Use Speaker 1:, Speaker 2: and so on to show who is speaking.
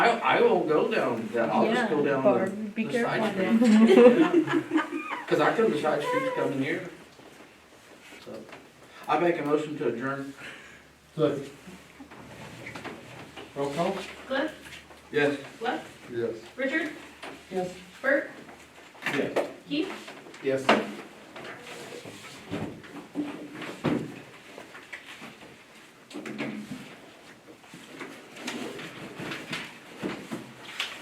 Speaker 1: I won't go down that, I'll just go
Speaker 2: Yeah,
Speaker 1: down the,
Speaker 2: Barb, be
Speaker 1: the
Speaker 2: careful
Speaker 1: side
Speaker 2: now.
Speaker 1: cause I couldn't decide streets coming here. So, I make a motion to adjourn.
Speaker 3: Second. Roll call?
Speaker 4: Cliff,
Speaker 1: Yes.
Speaker 4: Lex,
Speaker 3: Yes.
Speaker 4: Richard,
Speaker 3: Yes.
Speaker 4: Bert,
Speaker 3: Yes.
Speaker 4: Keith,
Speaker 3: Yes.